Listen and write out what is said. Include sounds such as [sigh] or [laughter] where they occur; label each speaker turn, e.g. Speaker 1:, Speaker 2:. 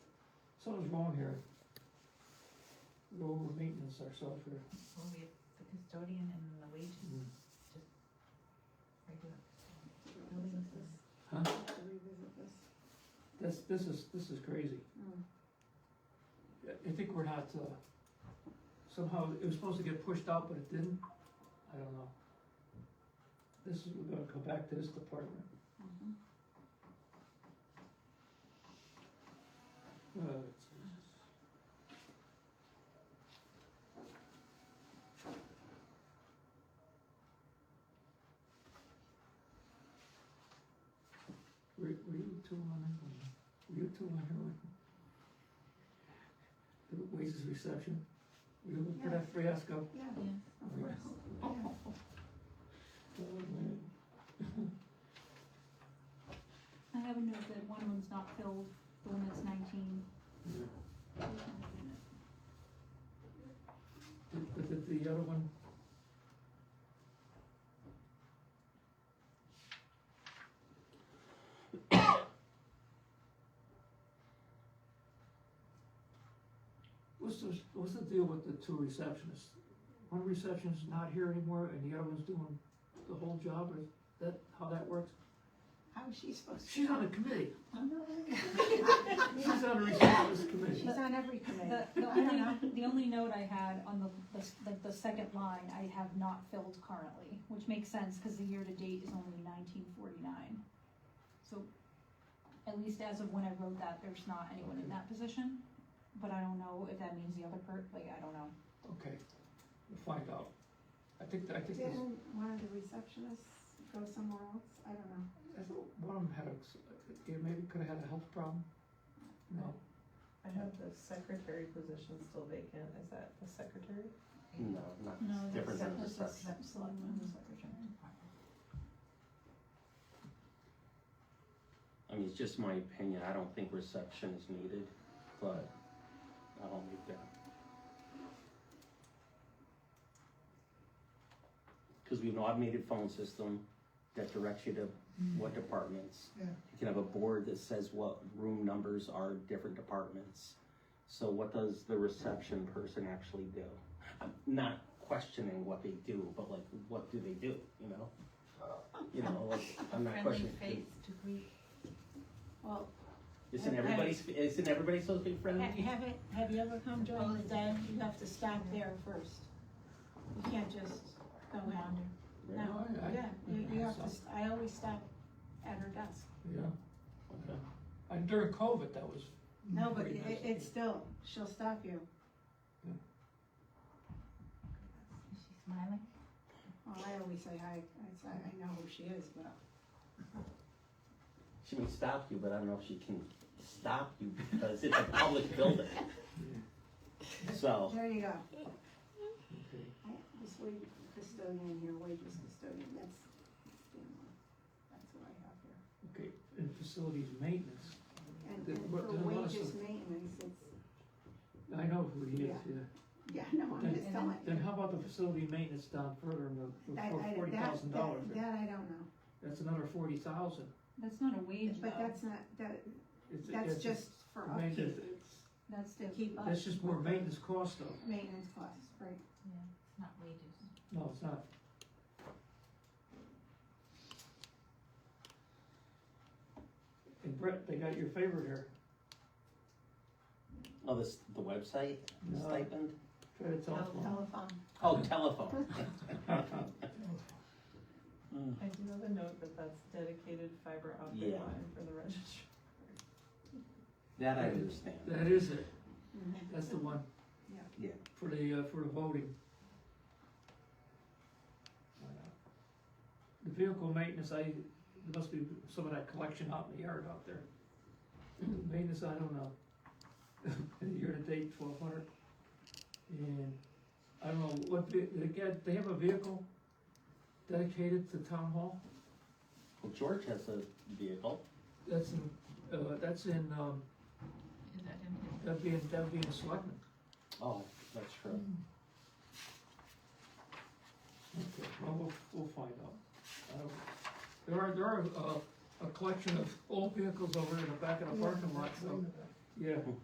Speaker 1: Someone's mowing here. Go over maintenance ourselves here.
Speaker 2: Well, we have the custodian and the wages,
Speaker 3: Mm.
Speaker 2: regular custodian. Building assist.
Speaker 4: have to revisit this.
Speaker 1: That's, this is, this is crazy.
Speaker 4: Mm.
Speaker 1: I I think we're not, uh, somehow, it was supposed to get pushed out, but it didn't. I don't know. This is, we're gonna come back to this department.
Speaker 4: Mhm.
Speaker 1: Uh, Were, were you two on that one? Were you two on that one? The wages reception? Were you looking at that fiasco?
Speaker 4: Yeah,
Speaker 2: Yeah.
Speaker 4: of course, yeah.
Speaker 1: Oh, man.
Speaker 5: I have a note that one of them's not filled, the one that's nineteen.
Speaker 1: Yeah.
Speaker 5: We can open it.
Speaker 1: Did- But did the other one? What's the, what's the deal with the two receptionists? One receptionist's not here anymore and the other one's doing the whole job, or is that, how that works?
Speaker 4: How is she supposed to?
Speaker 1: She's on a committee,
Speaker 4: I'm not on
Speaker 6: [laughs]
Speaker 4: it.
Speaker 1: she's on a receptionist committee.
Speaker 4: She's on every committee.
Speaker 5: The, the
Speaker 4: I don't
Speaker 5: only, the only note I had on the, the, s- like, the second line, I have not filled currently, which makes sense, cause the year to date is only nineteen forty-nine. So, at least as of when I wrote that, there's not anyone in that position, but I don't know if that means the other per, like, I don't know.
Speaker 1: Okay, we'll find out. I think, I think this.
Speaker 4: Didn't one of the receptionists go somewhere else? I don't know.
Speaker 1: I thought one of them had a, yeah, maybe could have had a health problem. No,
Speaker 7: I have the secretary position still vacant, is that the secretary?
Speaker 3: No, not
Speaker 5: No, that's-
Speaker 3: different than
Speaker 5: that's
Speaker 3: reception.
Speaker 5: just selectmen.
Speaker 2: the secretary.
Speaker 3: I mean, it's just my opinion, I don't think reception is needed, but I'll make that. Cause we have an automated phone system that directs you to what departments.
Speaker 1: Yeah.
Speaker 3: You can have a board that says what room numbers are different departments. So what does the reception person actually do? I'm not questioning what they do, but like, what do they do, you know? You know, like, I'm not
Speaker 2: Friendly
Speaker 3: questioning.
Speaker 2: face to greet.
Speaker 6: Well,
Speaker 3: Isn't everybody, sp- isn't everybody supposed to be
Speaker 6: ha-
Speaker 3: friendly?
Speaker 6: have it, have you ever come during the day, you have to stop there first. You can't just go out.
Speaker 3: Right?
Speaker 6: No,
Speaker 1: I- I-
Speaker 6: yeah, you, you have to, s- I always stop at her desk.
Speaker 1: Yeah. Okay. And during COVID, that was.
Speaker 4: No, but
Speaker 1: pretty
Speaker 4: it,
Speaker 1: Mm-hmm. nice.
Speaker 4: it's still, she'll stop you.
Speaker 2: Is she smiling?
Speaker 4: Well, I always say hi. I say, I know who she is, but
Speaker 3: She may stop you, but I don't know if she can stop you because it's a public building. So, Oh.
Speaker 4: there you go.
Speaker 1: Okay.
Speaker 4: I, this wage custodian here, wages custodian, that's, you know, that's what I have here.
Speaker 1: Okay, and facilities maintenance,
Speaker 4: And,
Speaker 1: Did-
Speaker 4: and
Speaker 1: what-
Speaker 4: for
Speaker 1: did one of
Speaker 4: wages
Speaker 1: some-
Speaker 4: maintenance, it's,
Speaker 1: I know who he is,
Speaker 4: Yeah.
Speaker 1: yeah.
Speaker 4: yeah, [laughs] no, I'm just
Speaker 2: Then-
Speaker 4: telling
Speaker 1: Then
Speaker 4: you.
Speaker 1: how about the facility maintenance down further in the,
Speaker 4: I- I-
Speaker 1: for
Speaker 4: that-
Speaker 1: forty thousand dollars?
Speaker 4: That that I don't know,
Speaker 1: That's another forty thousand.
Speaker 5: That's not a wage
Speaker 4: but
Speaker 5: though,
Speaker 4: that's not, that, that's just for
Speaker 1: Maintenance,
Speaker 4: upkeep,
Speaker 5: that's
Speaker 4: to
Speaker 5: the,
Speaker 4: keep up.
Speaker 1: that's just more maintenance cost though.
Speaker 4: Maintenance costs, right.
Speaker 2: Yeah, it's not wages.
Speaker 1: No, it's not. And Brett, they got your favorite here.
Speaker 3: oh, this, the website, the
Speaker 1: No.
Speaker 3: stipend?
Speaker 1: Uh, Try to tell them.
Speaker 4: Telephone.
Speaker 3: Oh, telephone.
Speaker 1: [laughs]
Speaker 3: Mm.
Speaker 7: I do have a note that that's dedicated fiber optic
Speaker 3: Yeah.
Speaker 7: line for the registry.
Speaker 3: That I understand. [laughs]
Speaker 1: That is it.
Speaker 4: Mhm.
Speaker 1: That's the one.
Speaker 4: Yeah.
Speaker 3: Yeah.
Speaker 1: For the, uh, for the voting. The vehicle maintenance, I, there must be some of that collection out in the yard out there. [clears throat] Maintenance, I don't know. [laughs] Year to date, twelve hundred. And I don't know, what, ve- they got, they have a vehicle dedicated to town hall?
Speaker 3: Well, George has a vehicle.
Speaker 1: That's in, uh, that's in, um,
Speaker 2: Is that him?
Speaker 1: that'd be, in- that'd be in Selectmen.
Speaker 3: Oh, that's true.
Speaker 1: Okay, well, we'll, we'll find out. I don't- There are, there are, uh, a collection of old vehicles over in the back of the parking lot, so, yeah.